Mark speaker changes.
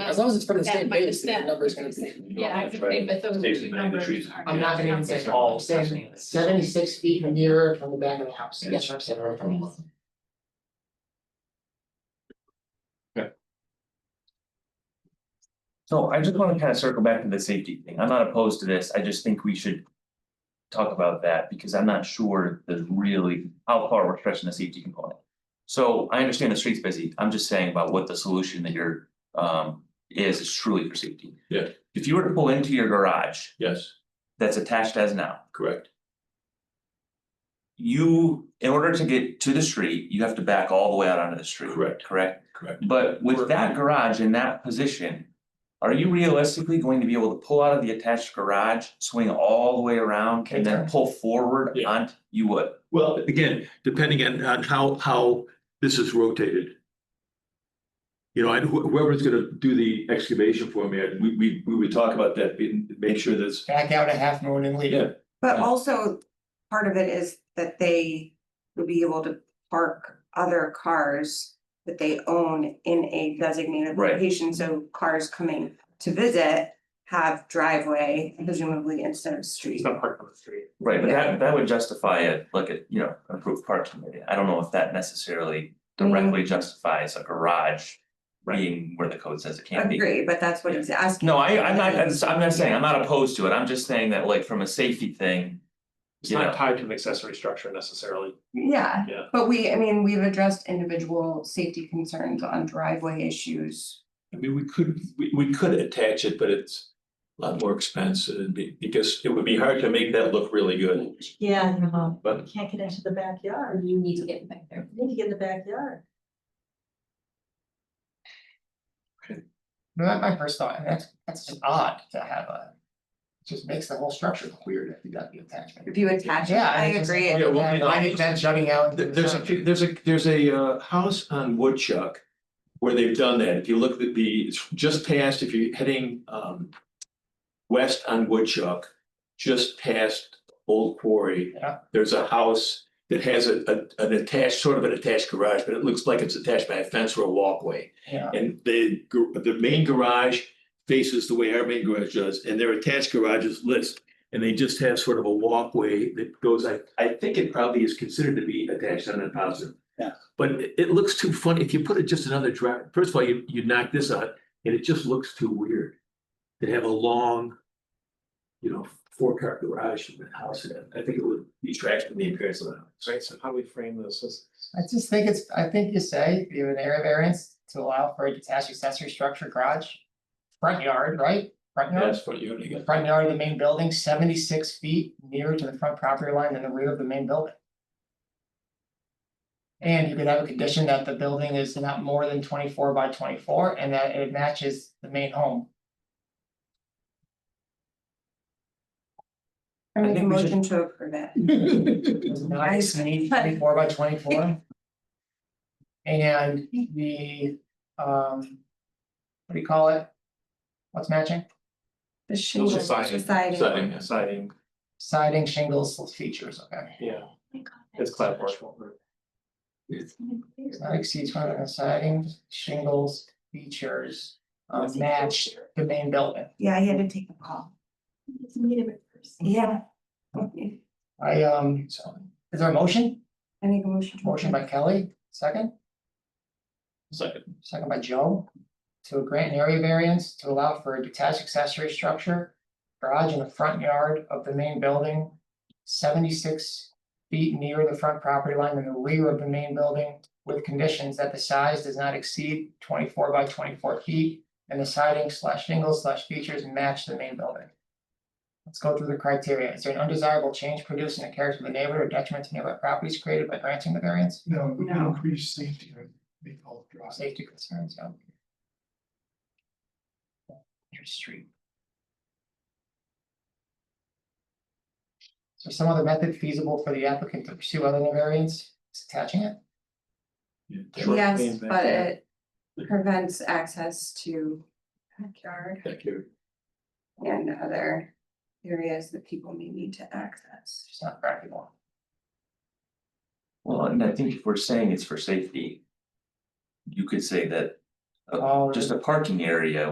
Speaker 1: as long as it's from the
Speaker 2: That
Speaker 1: same
Speaker 2: might
Speaker 1: base, the
Speaker 2: stand.
Speaker 1: number's gonna be.
Speaker 2: Yeah, I would say, but those
Speaker 3: Stays in
Speaker 2: two
Speaker 3: the main
Speaker 2: numbers
Speaker 3: trees.
Speaker 2: are.
Speaker 4: I'm not gonna even say all, I'm saying seventy-six feet nearer from the back of the house, that's what I'm saying, or from.
Speaker 5: So I just wanna kind of circle back to the safety thing, I'm not opposed to this, I just think we should. Talk about that, because I'm not sure the really, how far we're stretching the safety component. So I understand the street's busy, I'm just saying about what the solution that you're, um, is, is truly for safety.
Speaker 3: Yeah.
Speaker 5: If you were to pull into your garage
Speaker 3: Yes,
Speaker 5: that's attached as now,
Speaker 3: correct.
Speaker 5: you, in order to get to the street, you have to back all the way out onto the street.
Speaker 3: Correct.
Speaker 5: Correct,
Speaker 3: Correct.
Speaker 5: but with that garage in that position. Are you realistically going to be able to pull out of the attached garage, swing all the way around and then pull forward
Speaker 3: Yeah.
Speaker 5: on, you would?
Speaker 3: Well, again, depending on, on how, how this is rotated. You know, and wh- whoever's gonna do the excavation for me, and we, we, we would talk about that, and make sure that's,
Speaker 4: Back out a half moon and leave.
Speaker 3: Yeah.
Speaker 6: But
Speaker 3: Yeah.
Speaker 6: also, part of it is that they would be able to park other cars that they own in a designated
Speaker 5: Right.
Speaker 6: location, so cars coming to visit have driveway presumably instead of street.
Speaker 4: part of the street.
Speaker 5: Right, but that that would justify it, like a, you know, approved parking area, I don't know if that necessarily directly justifies a garage. Being where the code says it can't be.
Speaker 6: Agree, but that's what he's asking.
Speaker 5: No, I I'm not, I'm not saying, I'm not opposed to it, I'm just saying that like from a safety thing.
Speaker 4: It's
Speaker 5: you know.
Speaker 4: not tied to an accessory structure necessarily.
Speaker 6: Yeah,
Speaker 4: Yeah.
Speaker 6: but we, I mean, we've addressed individual safety concerns on driveway issues.
Speaker 3: I mean, we could, we, we could attach it, but it's. A lot more expensive, it'd be, because it would be hard to make that look really good,
Speaker 7: Yeah, no, you
Speaker 3: but
Speaker 7: can't get into the backyard,
Speaker 2: You need to get back there.
Speaker 7: you need to get in the backyard.
Speaker 4: No, that's my first thought, and that's, that's just odd to have a. Just makes the whole structure weird if you got the attachment.
Speaker 6: If you attach it,
Speaker 4: Yeah,
Speaker 6: I
Speaker 4: it's just-
Speaker 6: agree.
Speaker 3: Yeah, well,
Speaker 4: And
Speaker 3: no.
Speaker 4: I think that's shutting out.
Speaker 3: Th- There's a, few- there's a, there's a uh house on Woodchuck. Where they've done that, if you look at the, it's just past, if you're heading um. West on Woodchuck, just past Old Quarry.
Speaker 4: Yeah.
Speaker 3: There's a house that has a a an attached, sort of an attached garage, but it looks like it's attached by a fence or a walkway.
Speaker 4: Yeah.
Speaker 3: And the gar- the main garage faces the way our main garage does, and their attached garage is list. And they just have sort of a walkway that goes, I I think it probably is considered to be attached on a positive.
Speaker 1: Yeah.
Speaker 3: But it it looks too funny, if you put it just another drive, first of all, you you knock this out, and it just looks too weird. To have a long. You know, four car garage with a house in it, I think it would detract from the appearance of the house.
Speaker 4: Right, so how do we frame this as?
Speaker 8: I just think it's, I think you say, you have an area variance to allow for a detached accessory structure garage. Front yard, right? Front yard,
Speaker 3: That's what you're gonna
Speaker 8: the
Speaker 3: get.
Speaker 8: front yard of the main building, seventy-six feet nearer to the front property line than the rear of the main building. And you could have a condition that the building is not more than twenty-four by twenty-four and that it matches the main home.
Speaker 6: I
Speaker 5: I
Speaker 6: make a
Speaker 5: think we should-
Speaker 6: motion to approve it.
Speaker 8: It's not twenty- 24 by twenty-four. And the, um, what do you call it? What's matching?
Speaker 6: The shingles,
Speaker 4: siding.
Speaker 6: siding.
Speaker 3: Siding, yes.
Speaker 4: Siding,
Speaker 8: Siding, shingles, features, okay.
Speaker 4: yeah,
Speaker 2: It's
Speaker 4: it's clapboard.
Speaker 8: Does Not exceed five hundred siding, shingles, features, uh, match the main building.
Speaker 6: Yeah, he had to take the call.
Speaker 2: Meet him in person.
Speaker 6: Yeah. I
Speaker 8: I, um, so, is there a motion?
Speaker 6: make a motion. to
Speaker 8: Motion by Kelly, second? Second. Second by Joe, to grant an area variance to allow for a detached accessory structure. Garage in the front yard of the main building, seventy-six feet near the front property line and the rear of the main building. With conditions that the size does not exceed twenty-four by twenty-four feet and the siding slash shingles slash features match the main building. Let's go through the criteria. Is there an undesirable change produced in the character of the neighborhood or detriment to nearby properties created by granting the variance?
Speaker 9: No, we can
Speaker 6: No.
Speaker 9: increase safety, right? They all drive.
Speaker 8: Safety concerns, yeah. Your street. So some other method feasible for the applicant to pursue other than variance, Is attaching it?
Speaker 6: approve. Yes, but it prevents access to backyard
Speaker 3: Thank you.
Speaker 6: and other areas that people may need to access.
Speaker 8: It's not practical.
Speaker 5: Well, and I think if we're saying it's for safety. You could say that
Speaker 8: All-
Speaker 5: just a parking area